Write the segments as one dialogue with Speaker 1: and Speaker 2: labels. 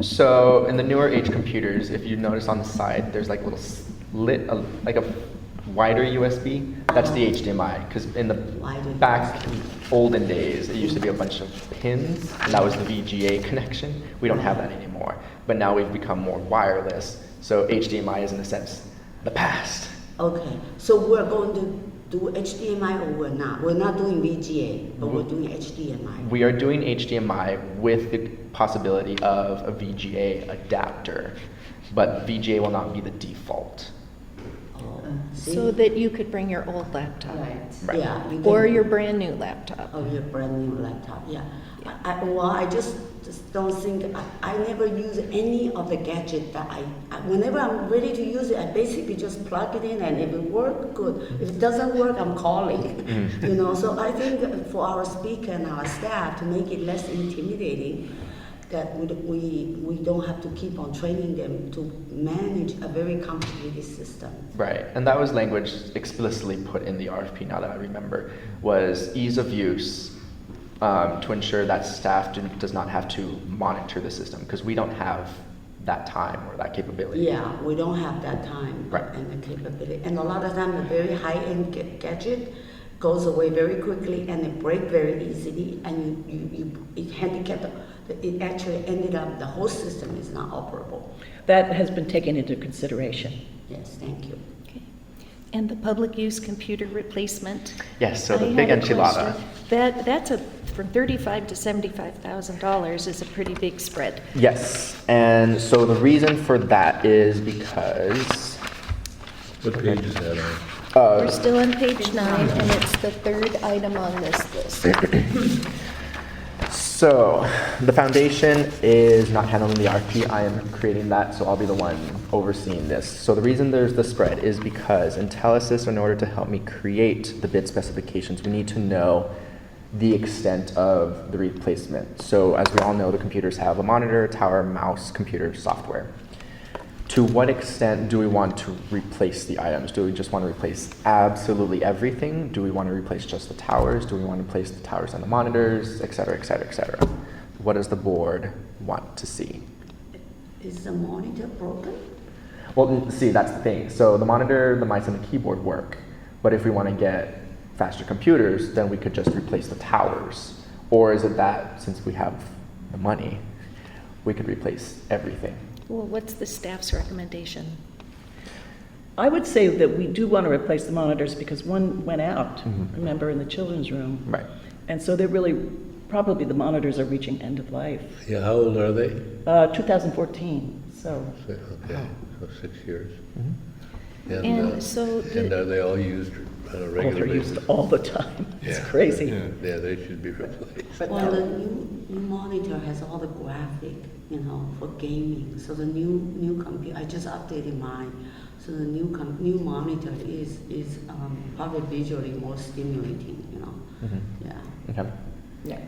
Speaker 1: So in the newer age computers, if you notice on the side, there's like little slit, uh, like a wider USB. That's the HDMI. Because in the
Speaker 2: Wider
Speaker 1: back olden days, it used to be a bunch of pins, and that was the VGA connection. We don't have that anymore. But now we've become more wireless. So HDMI is in a sense the past.
Speaker 2: Okay, so we're going to do HDMI or we're not? We're not doing VGA, but we're doing HDMI.
Speaker 1: We are doing HDMI with the possibility of a VGA adapter, but VGA will not be the default.
Speaker 2: Oh,
Speaker 3: Mm-hmm. Uh,
Speaker 2: see?
Speaker 3: So that you could bring your old laptop
Speaker 1: Right.
Speaker 2: Yeah. you
Speaker 3: or
Speaker 2: can-
Speaker 3: your brand new laptop.
Speaker 2: Of Oh, your brand new laptop, yeah. I, I- well, I just, just don't think, I, I never use any of the gadget that I, I- whenever I'm ready to use it, I basically just plug it in and if it works, good. If it doesn't work, I'm calling, you know? So I think for our speaker and our staff to make it less intimidating, that we, we, we don't have to keep on training them to manage a very complicated system.
Speaker 1: Right, and that was language explicitly put in the RFP. Now that I remember, was ease of use um, to ensure that staff do, does not have to monitor the system because we don't have that time or that capability.
Speaker 2: Yeah, we don't have that time
Speaker 1: Right.
Speaker 2: and the capability. And a lot of time, a very high-end ga- gadget goes away very quickly and it breaks very easily and you, you, you it handicapped, it actually ended up, the whole system is not operable.
Speaker 4: That has been taken into consideration.
Speaker 2: Yes, thank you.
Speaker 3: Okay. And the public use computer replacement?
Speaker 1: Yes. So the
Speaker 3: I
Speaker 1: big
Speaker 3: had a
Speaker 1: enchilada.
Speaker 3: question. That, that's a, from thirty-five to seventy-five thousand dollars is a pretty big spread.
Speaker 1: Yes, and so the reason for that is because
Speaker 5: What page is that on?
Speaker 1: Uh,
Speaker 3: We're still on page nine, and it's the third item on this list.
Speaker 1: So, the foundation is not handling the RFP. I am creating that, so I'll be the one overseeing this. So, the reason there's the spread is because IntelliSys, in order to help me create the bid specifications, we need to know the extent of the replacement. So, as we all know, the computers have a monitor, tower, mouse, computer, software. To what extent do we want to replace the items? Do we just want to replace absolutely everything? Do we want to replace just the towers? Do we want to replace the towers and the monitors, et cetera, et cetera, et cetera? What does the board want to see?
Speaker 2: Is the monitor broken?
Speaker 1: Well, n- see, that's the thing. So the monitor, the mice, and the keyboard work. But if we want to get faster computers, then we could just replace the towers. Or is it that since we have the money, we could replace everything?
Speaker 3: Well, what's the staff's recommendation?
Speaker 4: I would say that we do want to replace the monitors because one went out,
Speaker 5: Mm-hmm.
Speaker 4: remember, in the children's room.
Speaker 1: Right.
Speaker 4: And so they're really, probably the monitors are reaching end of life.
Speaker 5: Yeah, how old are they?
Speaker 4: Uh, 2014, so,
Speaker 5: Say- Okay, so six years.
Speaker 3: And
Speaker 5: uh,
Speaker 3: so the-
Speaker 5: And are they all used on a
Speaker 4: oh, they're
Speaker 5: regular basis?
Speaker 4: used all the time. It's
Speaker 5: Yeah.
Speaker 4: crazy.
Speaker 5: Yeah, yeah, they should be replaced.
Speaker 4: But
Speaker 2: Well,
Speaker 4: no.
Speaker 2: the new, new monitor has all the graphic, you know, for gaming. So the new, new computer, I just updated mine. So the new, com- new monitor is, is um, probably visually more stimulating, you know. Yeah.
Speaker 1: Okay.
Speaker 6: Yeah.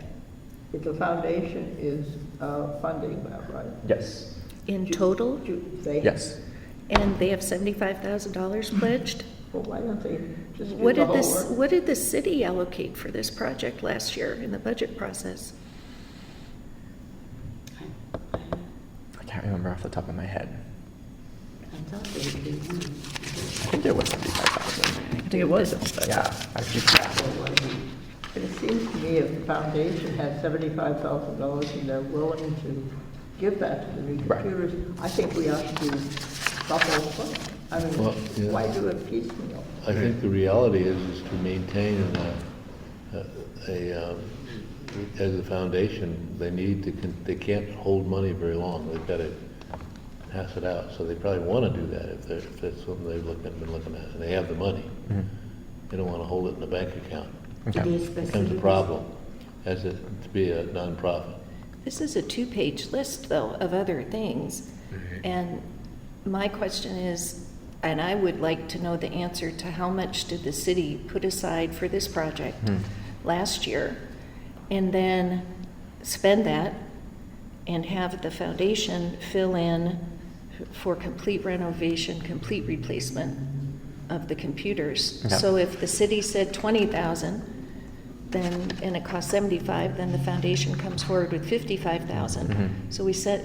Speaker 6: If the foundation is uh, funding that, right?
Speaker 1: Yes.
Speaker 3: In total?
Speaker 6: Do they-
Speaker 1: Yes.
Speaker 3: And they have seventy-five thousand dollars pledged?
Speaker 6: Well, why don't they just do
Speaker 3: What
Speaker 6: the
Speaker 3: did
Speaker 6: whole
Speaker 3: this,
Speaker 6: work?
Speaker 3: what did the city allocate for this project last year in the budget process?
Speaker 2: I, I,
Speaker 1: I can't remember off the top of my head.
Speaker 2: I thought they would be one.
Speaker 1: I think it was 75,000.
Speaker 4: I think it was.
Speaker 1: Yeah, actually, yeah.
Speaker 2: There wasn't.
Speaker 6: But it seems to me if the foundation has seventy-five thousand dollars and they're willing to give that to the new
Speaker 1: Right.
Speaker 6: computers, I think we ought to do the whole thing. I
Speaker 5: Well, yeah.
Speaker 6: mean, why do it piecemeal?
Speaker 5: I think the reality is, is to maintain a, a, um, as a foundation, they need to, con- they can't hold money very long. They've got to pass it out. So they probably want to do that if they're, if that's something they've looked, been looking at, and they have the money. They don't want to hold it in a bank account.
Speaker 2: Did
Speaker 1: Okay.
Speaker 2: they specify?
Speaker 5: Becomes a problem as it, to be a nonprofit.
Speaker 3: This is a two-page list, though, of other things. And my question is, and I would like to know the answer to how much did the city put aside for this project last year? And then spend that and have the foundation fill in for complete renovation, complete replacement of the computers.
Speaker 1: Yeah.
Speaker 3: So if the city said twenty thousand, then, and it costs seventy-five, then the foundation comes forward with fifty-five thousand. So we set,